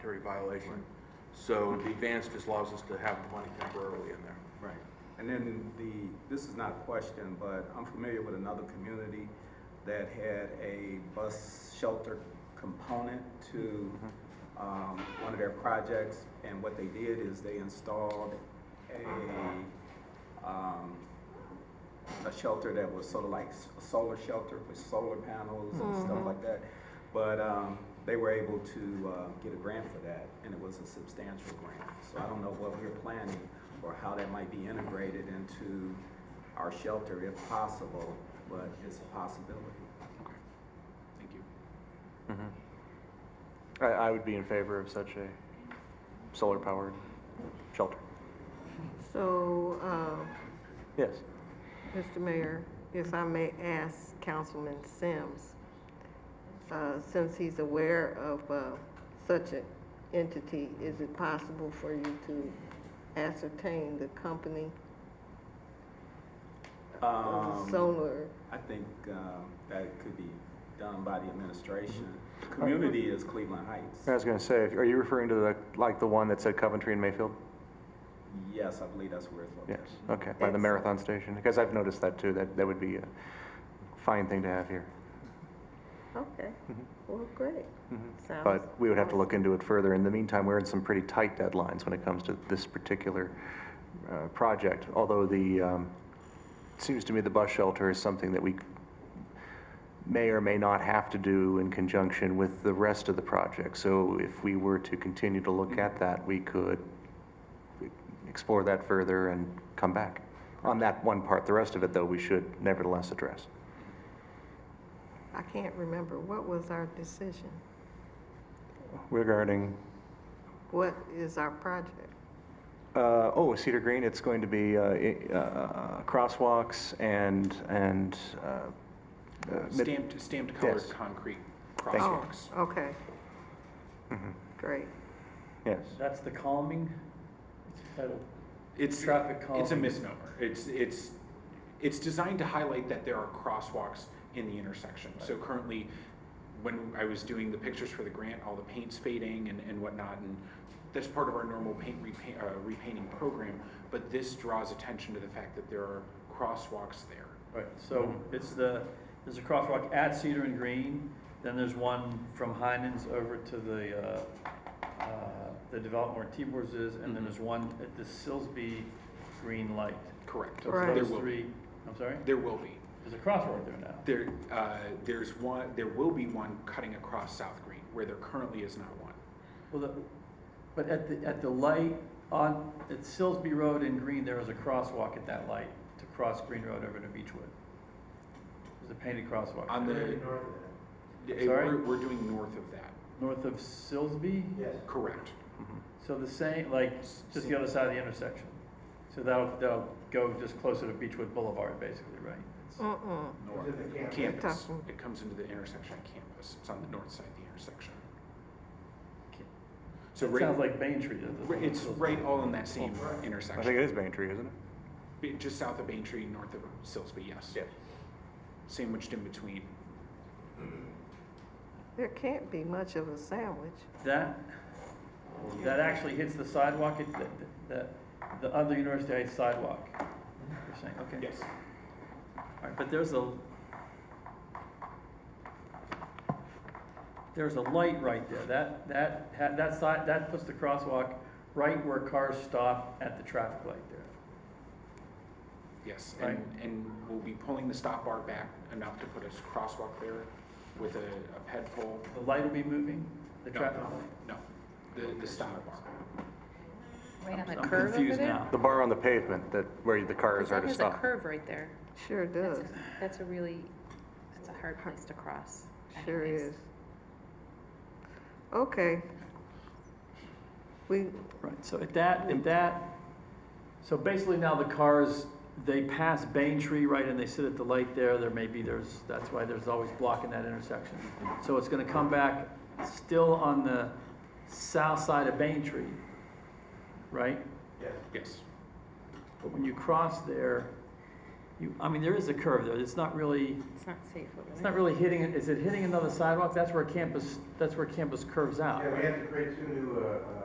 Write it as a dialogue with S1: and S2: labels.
S1: Terry violation. So the advance just allows us to have the money temporarily in there.
S2: Right. And then the, this is not a question, but I'm familiar with another community that had a bus shelter component to um, one of their projects. And what they did is they installed a, um, a shelter that was sort of like s- a solar shelter with solar panels and stuff like that. But um, they were able to uh, get a grant for that, and it was a substantial grant. So I don't know what we're planning or how that might be integrated into our shelter if possible, but it's a possibility.
S3: Thank you.
S4: I, I would be in favor of such a solar powered shelter.
S5: So, uh,
S4: Yes.
S5: Mr. Mayor, if I may ask Councilman Sims, uh, since he's aware of uh, such an entity, is it possible for you to ascertain the company of
S2: Um,
S5: the solar?
S2: I think um, that could be done by the administration. Community is Cleveland
S4: I
S2: Heights.
S4: was going to say, if- are you referring to the, like the one that said Coventry and Mayfield?
S2: Yes, I believe that's where it's
S4: Yes.
S2: located.
S4: Okay. By the
S5: Yes.
S4: marathon station. Because I've noticed that too. That, that would be a fine thing to have here.
S5: Okay, well, great. Sounds-
S4: mm-hmm. But we would have to look into it further. In the meantime, we're in some pretty tight deadlines when it comes to this particular uh, project. Although the, um, it seems to me the bus shelter is something that we may or may not have to do in conjunction with the rest of the project. So if we were to continue to look at that, we could explore that further and come back. On that one part, the rest of it, though, we should nevertheless address.
S5: I can't remember, what was our decision?
S4: Regarding
S5: What is our project?
S4: Uh, oh, Cedar Green, it's going to be uh, i- uh, crosswalks and, and, uh, uh, mid-
S3: Stamped, stamped colored
S4: Yes.
S3: concrete
S4: you. Mm-hmm.
S3: crosswalks.
S5: Oh, okay. Great.
S4: yes.
S6: That's the calming title.
S3: It's,
S6: Traffic
S3: it's a
S6: calming.
S3: misnomer. It's, it's, it's designed to highlight that there are crosswalks in the intersection. So currently, when I was doing the pictures for the grant, all the paint's fading and, and whatnot, and that's part of our normal paint repaint, uh, repainting program, but this draws attention to the fact that there are crosswalks there.
S6: Right, so it's the, there's a crosswalk at Cedar and Green, then there's one from Heinens over to the, uh, uh, the development where Tibor's is, and
S3: Mm-hmm.
S6: then there's one at the Silsby Green Light.
S3: Correct.
S6: So it's
S5: Right.
S3: There
S6: those
S3: will, be.
S6: three, I'm sorry,
S3: there will be.
S6: there's a crosswalk there now.
S3: There, uh, there's one, there will be one cutting across South Green, where there currently is not one.
S6: Well, the, but at the, at the light on, at Silsby Road and Green, there is a crosswalk at that light to cross Green Road over to Beechwood. There's a painted crosswalk.
S3: On
S6: there.
S3: the, Eh,
S6: Sorry?
S3: we're, we're doing north of that,
S6: North of Silsby?
S2: Yes.
S3: correct.
S6: So the same, like, just the other side of the intersection. So that'll, that'll go just closer to Beechwood Boulevard, basically, right? It's-
S5: Mm-mm.
S3: North, campus,
S5: Tough.
S3: it comes into the intersection of campus, it's on the north side of the intersection. So
S6: It sounds
S3: right,
S6: like Bain Tree. does this
S3: ri-
S6: one,
S3: it's
S6: Silsby.
S3: Oh, right all in that same
S4: I think it
S3: intersection,
S4: is Main Tree, isn't it?
S3: Be- just south of Bain Tree, north of Silsby, yes. Sandwiched in between,
S5: There can't be much of a sandwich.
S6: That, that actually hits the sidewalk, it's the, the, the other University Heights sidewalk. You're saying, okay.
S3: yes,
S6: All right, but there's a, there's a light right there, that, that, ha- that side, that puts the crosswalk right where cars stop at the traffic light there.
S3: yes, and, and we'll be pulling the stop bar back enough to put a crosswalk there with a, a ped pole.
S6: The light will be moving, the
S3: No,
S6: traffic light.
S3: No, the, the stop bar,
S7: Right on the
S6: I'm
S7: curve over
S6: confused
S7: there?
S6: now.
S4: The bar on the pavement that, where the cars are
S7: That
S4: to
S7: has a
S4: stop.
S7: curve right there.
S5: Sure
S7: That's
S5: does.
S7: a- That's a really, that's a hard place to cross.
S5: Sure
S7: anyways.
S5: is. Okay. We,
S6: Right, so at that, at that, so basically now the cars, they pass Bain Tree, right, and they sit at the light there, there may be, there's, that's why there's always blocking that intersection. So it's gonna come back still on the south side of Bain Tree, right?
S3: yes.
S6: But when you cross there, you, I mean, there is a curve there, it's not really,
S7: It's not safe over there.
S6: it's not really hitting, it. Is it hitting another sidewalk? That's where campus, that's where campus curves out.
S8: Yeah, we had to create two new, uh,